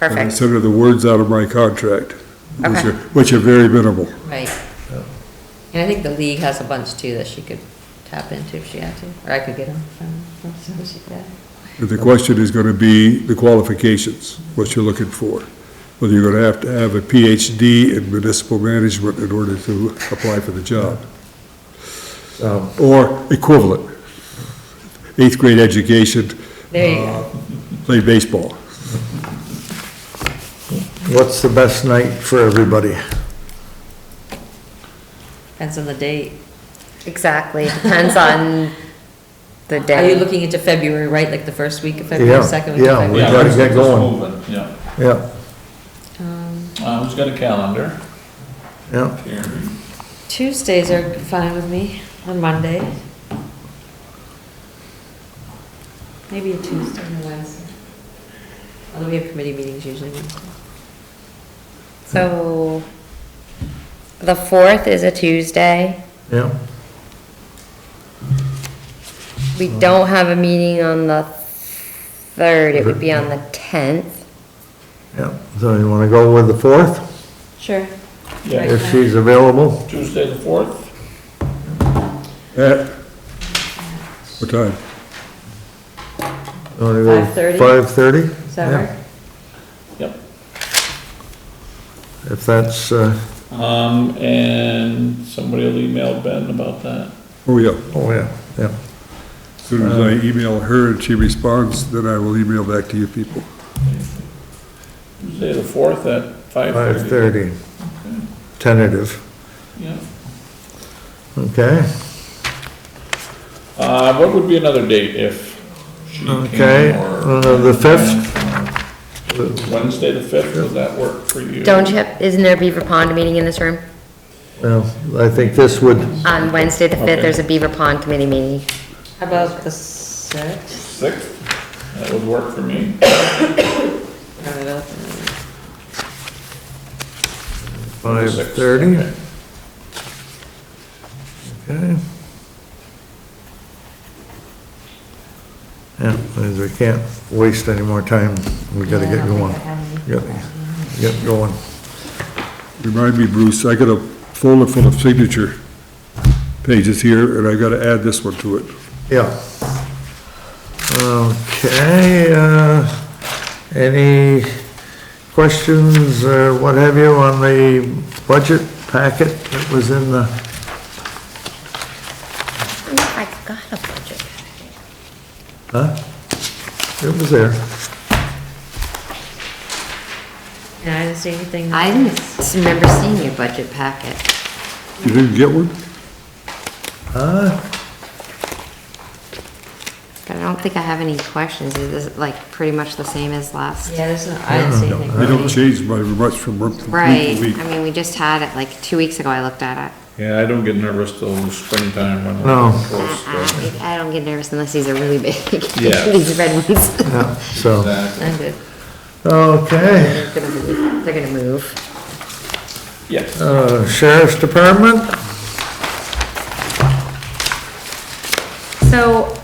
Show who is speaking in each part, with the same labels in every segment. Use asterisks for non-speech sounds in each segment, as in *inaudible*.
Speaker 1: And I
Speaker 2: perfect,
Speaker 1: said, are the words out of my contract, which
Speaker 2: Okay.
Speaker 1: are, which are very minimal.
Speaker 3: Right. And I think the league has a bunch too that she could tap into if she had to, or I could get them from, from she could.
Speaker 1: But The question is gonna be the qualifications, what you're looking for. Whether you're gonna have to have a PhD in municipal management in order to apply for the job,
Speaker 4: So,
Speaker 1: or equivalent. Eighth grade education,
Speaker 3: There you
Speaker 4: Uh,
Speaker 3: go.
Speaker 1: play baseball.
Speaker 4: what's the best night for everybody?
Speaker 3: Depends on the date.
Speaker 2: exactly, depends on
Speaker 3: *laughs*
Speaker 2: the
Speaker 3: Are you
Speaker 2: day.
Speaker 3: looking into February, right? Like the first week of
Speaker 4: Yeah,
Speaker 3: February, second week
Speaker 4: yeah,
Speaker 3: of
Speaker 4: we
Speaker 3: February?
Speaker 5: Yeah,
Speaker 4: gotta
Speaker 5: let's-
Speaker 4: get
Speaker 5: let's
Speaker 4: going.
Speaker 5: move it, Yeah,
Speaker 4: Yeah,
Speaker 3: Um,
Speaker 5: uh, who's got a calendar?
Speaker 4: yeah,
Speaker 5: Here.
Speaker 3: Tuesdays are fine with me, on Monday. Maybe a Tuesday and a Wednesday. Although we have committee meetings usually Wednesday.
Speaker 2: So the fourth is a Tuesday.
Speaker 4: yeah.
Speaker 2: We don't have a meeting on the third, it would be on the tenth.
Speaker 4: Yeah, so you wanna go with the fourth,
Speaker 3: Sure.
Speaker 5: Yeah,
Speaker 4: if she's available?
Speaker 5: Tuesday the fourth,
Speaker 1: At, what time?
Speaker 3: Five-thirty?
Speaker 4: Five thirty?
Speaker 3: Does that work?
Speaker 5: yep.
Speaker 4: If that's, uh,
Speaker 5: Um, and somebody will email Ben about that.
Speaker 1: Oh, yeah.
Speaker 4: oh, yeah, yeah.
Speaker 1: As soon as I email her and she responds, then I will email back to you people.
Speaker 5: Tuesday the fourth at five thirty.
Speaker 4: Five thirty, tentative,
Speaker 5: Yeah.
Speaker 4: okay?
Speaker 5: Uh, what would be another date if she came or?
Speaker 4: Okay, uh, the
Speaker 5: fifth? Wednesday the fifth, would that work for you?
Speaker 2: Don't you, have- isn't there a Beaver Pond meeting in this room?
Speaker 4: Well, I think this would,
Speaker 2: On Wednesday, the fifth,
Speaker 5: Okay.
Speaker 2: there's a Beaver Pond committee meeting.
Speaker 3: How about the sixth?
Speaker 5: Sixth, that would work for me.
Speaker 4: five
Speaker 5: Sixth,
Speaker 4: thirty,
Speaker 5: okay.
Speaker 4: okay? Yeah, because we can't waste any more time, we gotta get going, gotta get going.
Speaker 1: Remind me, Bruce, I got a folder full of signature pages here, and I gotta add this one to it.
Speaker 4: Yeah. Okay, uh, any questions or what have you on the budget packet that was in the,
Speaker 2: I got a budget.
Speaker 4: huh? It was there.
Speaker 3: And I didn't see anything.
Speaker 2: I didn't s- remember seeing your budget packet.
Speaker 1: You didn't get one?
Speaker 4: Huh?
Speaker 2: But I don't think I have any questions. Is this like pretty much the same as last?
Speaker 3: Yeah, there's no, I didn't see anything.
Speaker 1: They don't change by much from month to
Speaker 2: Right,
Speaker 1: week.
Speaker 2: I mean, we just had it, like, two weeks ago I looked at it.
Speaker 5: Yeah, I don't get nervous till springtime when
Speaker 4: No.
Speaker 5: we're close to.
Speaker 2: I I don't get nervous unless these are really *laughs* big.
Speaker 5: Yeah.
Speaker 2: These red
Speaker 5: *laughs*
Speaker 2: ones.
Speaker 4: Yeah, so,
Speaker 5: Exactly.
Speaker 3: I'm good.
Speaker 4: okay,
Speaker 2: They're gonna move. They're gonna move.
Speaker 5: Yes.
Speaker 4: uh, Sheriff's Department?
Speaker 2: So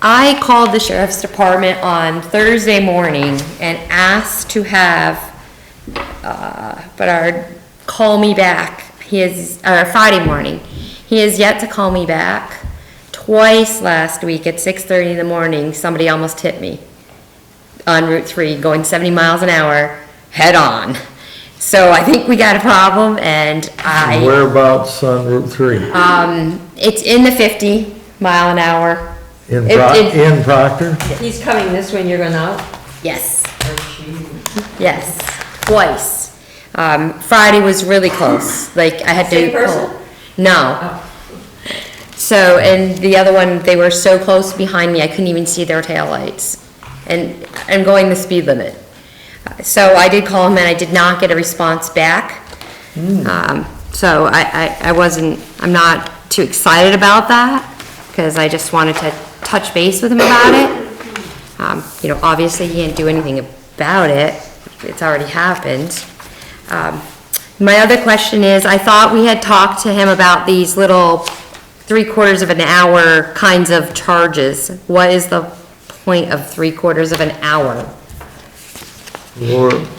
Speaker 2: I called the sheriff's department on Thursday morning and asked to have, uh, Bernard call me back. He is, or Friday morning. He has yet to call me back. Twice last week at six thirty in the morning, somebody almost hit me on Route 3 going 70 miles an hour head on. So I think we got a problem and I.
Speaker 4: Whereabouts on Route 3?
Speaker 2: Um, it's in the fifty mile an hour.
Speaker 4: In
Speaker 2: it-
Speaker 4: Pro-
Speaker 2: it-
Speaker 4: in Proctor?
Speaker 3: He's coming this way and you're going out?
Speaker 2: Yes, yes, twice. Um, Friday was really close, like I had to.
Speaker 3: Same person?
Speaker 2: No. So, and the other one, they were so close behind me, I couldn't even see their taillights. And I'm going the speed limit. So I did call him and I did not get a response back.
Speaker 3: Hmm.
Speaker 2: Um, so I, I, I wasn't, I'm not too excited about that, because I just wanted to touch base with him about it. Um, you know, obviously he can't do anything about it, it's already happened. Um, my other question is, I thought we had talked to him about these little three quarters of an hour kinds of charges. What is the point of three quarters of an hour?
Speaker 4: Or